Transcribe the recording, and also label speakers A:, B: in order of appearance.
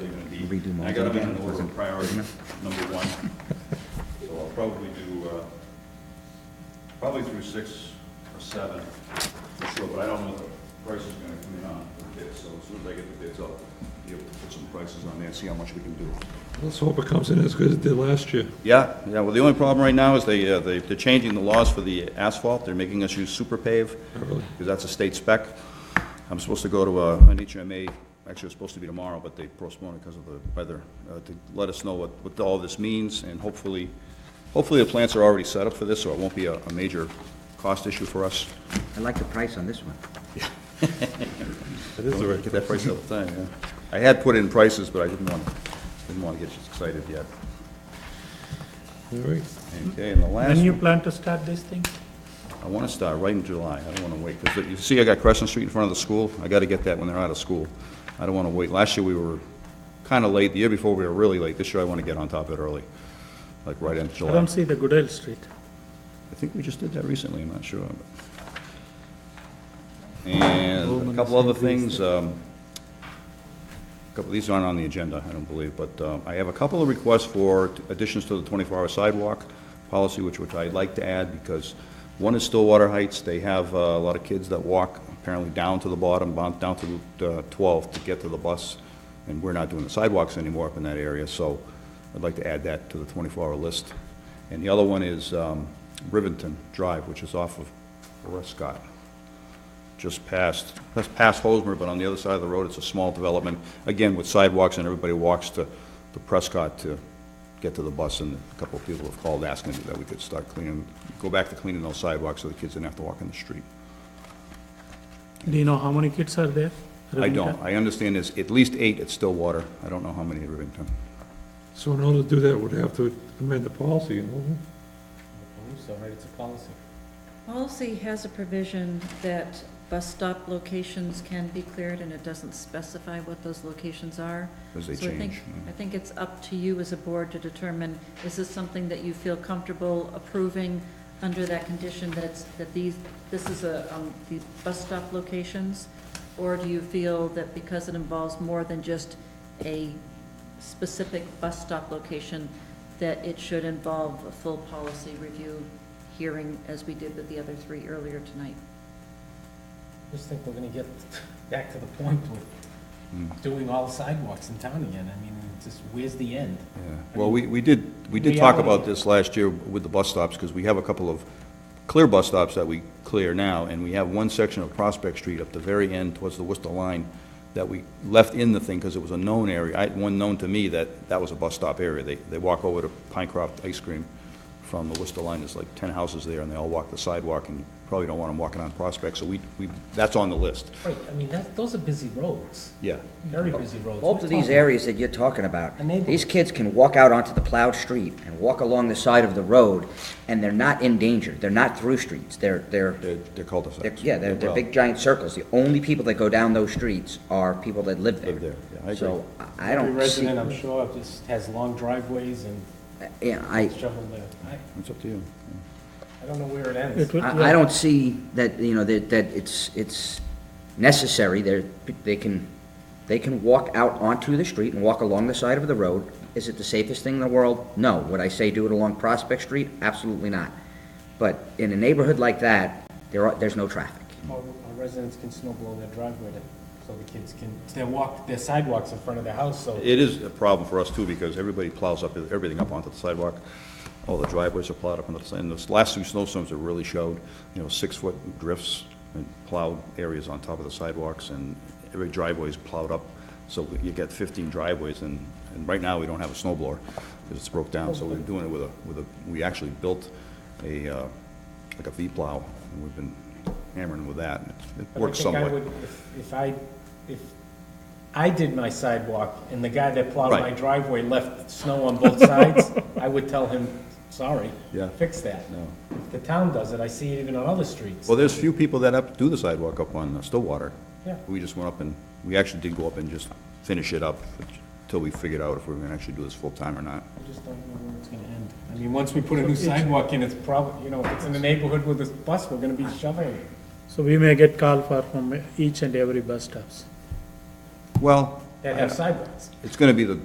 A: redo
B: And
A: mine.
B: I got them in
A: again?
B: an order
A: Doesn't-
B: of priority,
A: doesn't it?
B: number one. So I'll probably do, uh, probably through six or seven, for sure, but I don't know what the price is gonna come in on the bids, so as soon as I get the bids, I'll be able to put some prices on there and see how much we can do.
C: Let's hope it comes in as good as it did last year.
B: Yeah, yeah, well, the only problem right now is they, uh, they- they're changing the laws for the asphalt, they're making us use super pave,
C: Oh, Really?
B: because that's a state spec. I'm supposed to go to uh, an HMA, actually, it's supposed to be tomorrow, but they postponed it because of the weather, uh, to let us know what, what all this means, and hopefully, hopefully the plants are already set up for this, so it won't be a, a major cost issue for us.
A: I like the price on this one.
C: It is the
B: Get
C: right,
B: that price all the time, yeah. I had put in prices, but I didn't want, didn't want to get you excited yet.
C: all right.
B: Okay, and the last
D: When
B: one.
D: you plan to start this thing?
B: I want to start right in July, I don't want to wait, because you see, I got Crescent Street in front of the school, I got to get that when they're out of school. I don't want to wait, last year we were kind of late, the year before we were really late, this year I want to get on top of it early, like right in
D: I
B: July.
D: don't see the Goodell Street.
B: I think we just did that recently, I'm not sure. And a couple other things, um, a couple, these aren't on the agenda, I don't believe, but um, I have a couple of requests for additions to the 24-hour sidewalk policy, which, which I'd like to add, because one is Stillwater Heights, they have uh, a lot of kids that walk apparently down to the bottom, bon- down to Route uh, 12 to get to the bus, and we're not doing the sidewalks anymore up in that area, so I'd like to add that to the 24-hour list. And the other one is um, Rivington Drive, which is off of Prescott just past, that's past Hosmer, but on the other side of the road, it's a small development, again, with sidewalks, and everybody walks to, to Prescott to get to the bus, and a couple of people have called asking that we could start cleaning, go back to cleaning those sidewalks so the kids didn't have to walk in the street.
D: Do you know how many kids are there?
B: I don't,
D: Ravindra?
B: I understand there's at least eight at Stillwater, I don't know how many at Rivington.
C: So in order to do that, we'd have to amend the policy, you know?
E: So, right, it's a policy.
F: Policy has a provision that bus stop locations can be cleared, and it doesn't specify what those locations are.
B: 'Cause they
F: So I think-
B: change, yeah.
F: I think it's up to you as a board to determine, is this something that you feel comfortable approving under that condition that's, that these, this is a, um, these bus stop locations? Or do you feel that because it involves more than just a specific bus stop location, that it should involve a full policy review hearing as we did with the other three earlier tonight?
E: Just think we're gonna get back to the point with doing all the sidewalks in town again. I mean, it's just, where's the end?
B: Yeah, well, we, we did, we did talk about this last year with the bus stops, because we have a couple of clear bus stops that we clear now, and we have one section of Prospect Street up the very end towards the Worcester line that we left in the thing, because it was a known area, I, one known to me that that was a bus stop area. They, they walk over to Pinecroft Ice Cream from the Worcester line, there's like ten houses there, and they all walk the sidewalk, and you probably don't want them walking on Prospect, so we, we, that's on the list,
E: Right, I mean, that, those are busy roads,
B: yeah.
E: very busy roads.
A: Both of these areas that you're talking about,
E: A neighborhood.
A: these kids can walk out onto the plowed street and walk along the side of the road, and they're not in danger. They're not through streets. They're, they're,
B: They're, they're
A: they're-
B: cul-de-sacs.
A: yeah, they're, they're
B: Well,
A: big giant circles. The only people that go down those streets are people that live there.
B: Live there, yeah, I agree.
A: So I I
E: Every
A: don't see,
E: resident, I'm sure, just has long driveways and
A: yeah, I,
E: shovel there. I,
B: It's up to you.
E: I don't know where it
D: It
E: ends.
D: will-
A: I, I don't see that, you know, that, that it's, it's necessary, they're, they can, they can walk out onto the street and walk along the side of the road. Is it the safest thing in the world? No. Would I say do it along Prospect Street? Absolutely not. But in a neighborhood like that, there are, there's no traffic.
E: Our our residents can snow blow their driveway to, so the kids can, they walk, their sidewalks in front of their house, so.
B: It is a problem for us too, because everybody plows up, everything up onto the sidewalk. All the driveways are plowed up onto the side, and those last two snowstorms have really showed, you know, six-foot drifts and plowed areas on top of the sidewalks, and every driveway is plowed up. So you get fifteen driveways, and, and right now, we don't have a snowblower because it's broke down, so we're doing it with a, with a, we actually built a, uh, like a V-plow, and we've been hammering with that, and it- it
E: But I
B: works
E: think I
B: somewhat.
E: would, if- if I, if I did my sidewalk and the guy that plowed
B: Right.
E: my driveway left snow on both sides, I would tell him, sorry,
B: Yeah.
E: fix that.
B: No.
E: If The town does it, I see it even on other streets.
B: Well, there's few people that up, do the sidewalk up on uh, Stillwater.
E: Yeah.
B: We just went up and, we actually did go up and just finish it up until we figured out if we were gonna actually do this full-time or not.
E: I just don't know where it's gonna end. I mean, once we put a new sidewalk in, it's probably, you know, if it's in the neighborhood with a bus, we're gonna be shoveling it.
D: So we may get call for from each and every bus stops.
B: Well,
E: that have sidewalks.
B: it's gonna be the